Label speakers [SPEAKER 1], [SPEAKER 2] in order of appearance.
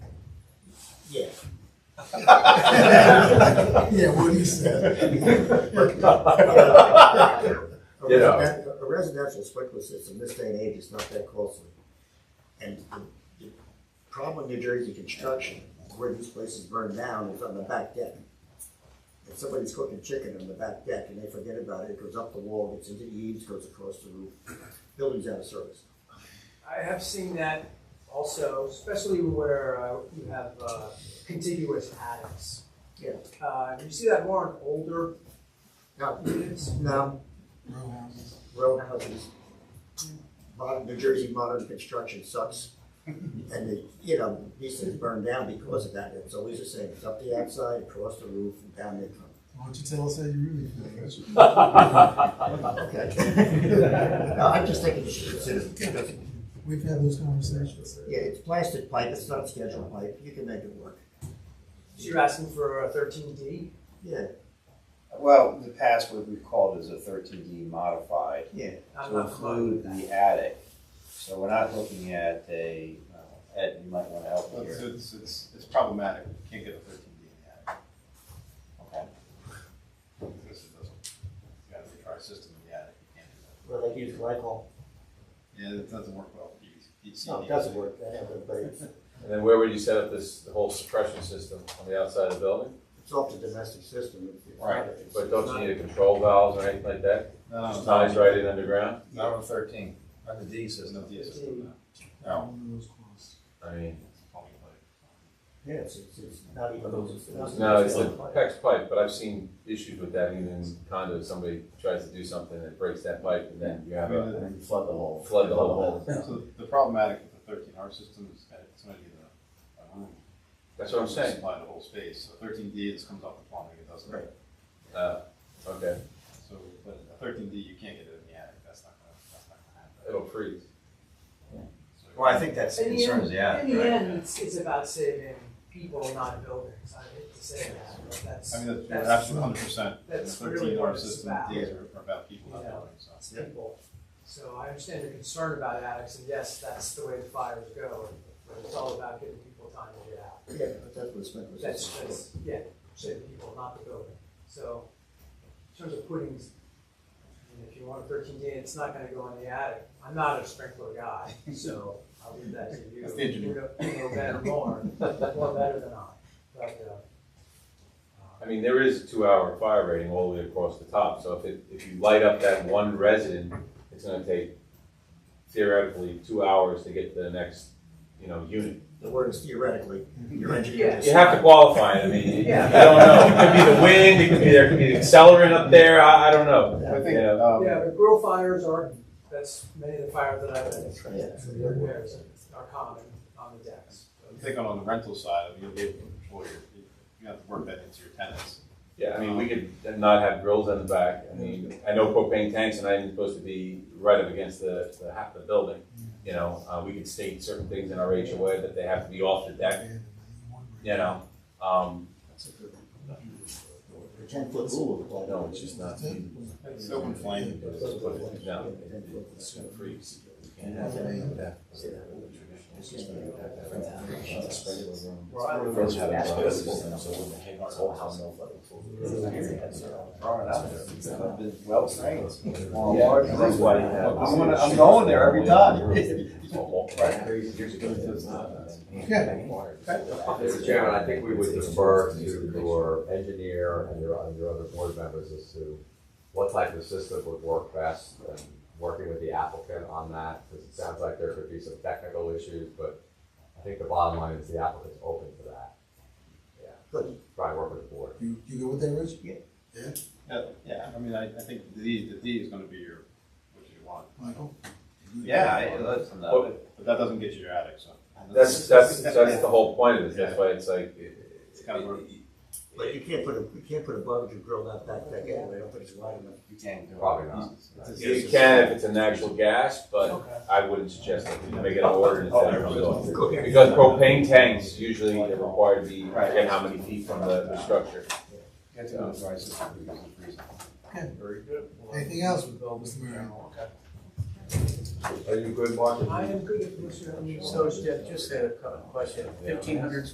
[SPEAKER 1] Yeah.
[SPEAKER 2] Yeah, what he said.
[SPEAKER 1] A
[SPEAKER 3] You know.
[SPEAKER 1] residen- A residential sprinkler system, this day and age, is not that costly. And the the problem in New Jersey construction, where these places burn down, is on the back deck. If somebody's cooking chicken on the back deck and they forget about it, it goes up the wall, gets into eaves, goes across the roof, building's out of service.
[SPEAKER 4] I have seen that also, especially where uh, you have uh, contiguous attics.
[SPEAKER 1] Yeah.
[SPEAKER 4] Uh, you see that more in older
[SPEAKER 1] Now,
[SPEAKER 4] units.
[SPEAKER 1] now, row houses, modern, New Jersey modern construction sucks. And the, you know, these things burn down because of that, it's always the same, it's up the outside, across the roof, and down they come.
[SPEAKER 2] Why don't you tell us how you really feel?
[SPEAKER 1] Okay. No, I'm just thinking you should consider, it because,
[SPEAKER 2] We've had those conversations.
[SPEAKER 1] yeah, it's plastic pipe, it's not scheduled pipe, you can make it work.
[SPEAKER 4] So you're asking for a 13D.
[SPEAKER 1] Yeah,
[SPEAKER 5] Well, in the past, what we've called is a thirteen D modified
[SPEAKER 1] yeah,
[SPEAKER 4] I'm
[SPEAKER 5] to
[SPEAKER 4] not familiar with
[SPEAKER 5] include
[SPEAKER 4] that.
[SPEAKER 5] the attic. So we're not looking at a, uh, Ed, you might wanna help me
[SPEAKER 6] It's,
[SPEAKER 5] here.
[SPEAKER 6] it's, it's, it's problematic, you can't get a thirteen D in the attic,
[SPEAKER 5] Okay.
[SPEAKER 6] because it doesn't, you gotta retry a system in the attic, you can't do
[SPEAKER 1] well, they use glycol,
[SPEAKER 6] that. Yeah, it doesn't work well. for PVC.
[SPEAKER 1] no, it doesn't work, I know, but it's,
[SPEAKER 3] And then where would you set up this, the whole suppression system on the outside of the building?
[SPEAKER 1] it's off the domestic system. It's- it's not-
[SPEAKER 6] Right,
[SPEAKER 1] it's-
[SPEAKER 3] But don't you need a control valves or anything like that?
[SPEAKER 6] No,
[SPEAKER 3] Just
[SPEAKER 6] no,
[SPEAKER 3] ties
[SPEAKER 6] no,
[SPEAKER 3] right in underground?
[SPEAKER 6] not on thirteen, not the D system. No D system,
[SPEAKER 5] Oh.
[SPEAKER 6] no.
[SPEAKER 3] I mean,
[SPEAKER 1] Yeah, it's, it's, it's not even.
[SPEAKER 3] no, it's the PEX pipe, but I've seen issues with that even in condos. Somebody tries to do something and it breaks that pipe and then you have a
[SPEAKER 6] No.
[SPEAKER 1] Flood the whole.
[SPEAKER 3] flood the whole hole.
[SPEAKER 6] So the problematic with the thirteen R system is that it's gonna need a, a room.
[SPEAKER 3] That's what I'm
[SPEAKER 6] to
[SPEAKER 3] saying.
[SPEAKER 6] Supply the whole space, so thirteen D, this comes off the plumbing, it doesn't.
[SPEAKER 1] Right.
[SPEAKER 3] Uh, okay,
[SPEAKER 6] So, but a thirteen D, you can't get it in the attic, that's not gonna, that's not gonna happen.
[SPEAKER 3] it'll freeze.
[SPEAKER 6] So-
[SPEAKER 5] Well, I think that's the
[SPEAKER 4] In the
[SPEAKER 5] concern
[SPEAKER 4] end,
[SPEAKER 5] is the attic,
[SPEAKER 4] in the
[SPEAKER 5] right?
[SPEAKER 4] end it's, it's about saving people, not buildings. I hate to say that, but that's
[SPEAKER 6] I mean, that's,
[SPEAKER 4] That's-
[SPEAKER 6] that's absolutely hundred percent.
[SPEAKER 4] that's really
[SPEAKER 6] Thirteen
[SPEAKER 4] what
[SPEAKER 6] R
[SPEAKER 4] it's
[SPEAKER 6] system,
[SPEAKER 4] about.
[SPEAKER 6] these are are about people, not
[SPEAKER 4] Yeah.
[SPEAKER 6] buildings, so.
[SPEAKER 4] it's people. So I understand your concern about attics, and yes, that's the way the fires go. But it's all about giving people time to get out.
[SPEAKER 1] Yeah, but that's what the sprinkler
[SPEAKER 4] That's,
[SPEAKER 1] system is
[SPEAKER 4] that's, yeah, saving people, not the building. So, in terms of puddings, I mean, if you want a thirteen day, it's not gonna go in the attic. I'm not a sprinkler guy, so I'll leave that to you.
[SPEAKER 6] That's the engineer.
[SPEAKER 4] You know- you know better more, more better than I, but, uh,
[SPEAKER 3] I
[SPEAKER 4] uh,
[SPEAKER 3] mean, there is a two-hour fire rating all the way across the top, so if it, if you light up that one resident, it's gonna take theoretically two hours to get to the next, you know, unit.
[SPEAKER 1] The word is theoretically, your engineer.
[SPEAKER 3] You have to qualify it, I mean, you-
[SPEAKER 4] Yeah.
[SPEAKER 3] I don't know, it could be the wind, it could be, there could be an accelerant up there, I, I don't know.
[SPEAKER 6] I think,
[SPEAKER 3] Yeah.
[SPEAKER 6] um,
[SPEAKER 4] uh, Yeah, but grill fires are, that's many of the fires that I've been,
[SPEAKER 1] right. "Oh, Yeah.
[SPEAKER 4] the repairs are common on the decks.
[SPEAKER 6] I'm thinking on the rental side, I mean, you'll be able to control your, you- you have to work that into your tenants.
[SPEAKER 3] Yeah, I mean, we could not have grills in the back, I mean, I know propane tanks are not even supposed to be right up against the, the half of the building. You know, uh, we could state certain things in our HOA that they have to be off the deck, you know, um,
[SPEAKER 1] The ten foot rule applies.
[SPEAKER 3] no, it's just not.
[SPEAKER 6] It's open flame.
[SPEAKER 3] Just put it down. It's gonna freeze. You can't have any of that. It's just gonna be that- that- that sprinkler room.
[SPEAKER 4] Where I live,
[SPEAKER 3] First have a lot of system, so when the whole house-
[SPEAKER 5] Throwing it out there. It's Well, trained. Well,
[SPEAKER 3] Yeah.
[SPEAKER 5] large roof lighting. I'm gonna, I'm going
[SPEAKER 3] going
[SPEAKER 5] there every time.
[SPEAKER 3] uh,
[SPEAKER 7] Mr. Chairman, I think we would defer to your engineer and your, and your other board members as to what type of system would work best and working with the applicant on that, because it sounds like there could be some technical issues, but I think the bottom line is the applicant's open to that. Yeah,
[SPEAKER 1] Good.
[SPEAKER 7] try and work with the board.
[SPEAKER 2] You, you go with that, Rich?
[SPEAKER 1] Yeah.
[SPEAKER 2] Yeah,
[SPEAKER 6] Yeah, yeah, I mean, I, I think the D, the D is gonna be your, what you want,
[SPEAKER 2] Michael?
[SPEAKER 5] Yeah, I- listen, uh,
[SPEAKER 3] Well,
[SPEAKER 6] but that doesn't get you your attic, so.
[SPEAKER 3] That's, that's, that's the whole point of this, that's why it's like.
[SPEAKER 6] It's gotta work.
[SPEAKER 1] But you can't put a, you can't put a barbecue grill out back deck anyway, I don't think it's wide enough.
[SPEAKER 5] You can do it.
[SPEAKER 7] Probably not.
[SPEAKER 6] It's a-
[SPEAKER 3] You can if it's a natural gas, but
[SPEAKER 4] Okay.
[SPEAKER 3] I wouldn't suggest that we make it an ordinance.
[SPEAKER 6] Oh,
[SPEAKER 3] that comes off.
[SPEAKER 6] everybody's-
[SPEAKER 1] Go ahead.
[SPEAKER 3] Because propane tanks usually are required to be, I forget how many feet from the, the structure.
[SPEAKER 6] You have to go to the right system because of freezing.
[SPEAKER 2] Okay.
[SPEAKER 6] Very good.
[SPEAKER 2] Anything else, Mr. Mayor?
[SPEAKER 7] Are you good, Mark?
[SPEAKER 4] I am good at, what's your,
[SPEAKER 8] So Jeff, just a couple of questions.
[SPEAKER 3] Yeah.
[SPEAKER 8] Fifteen hundred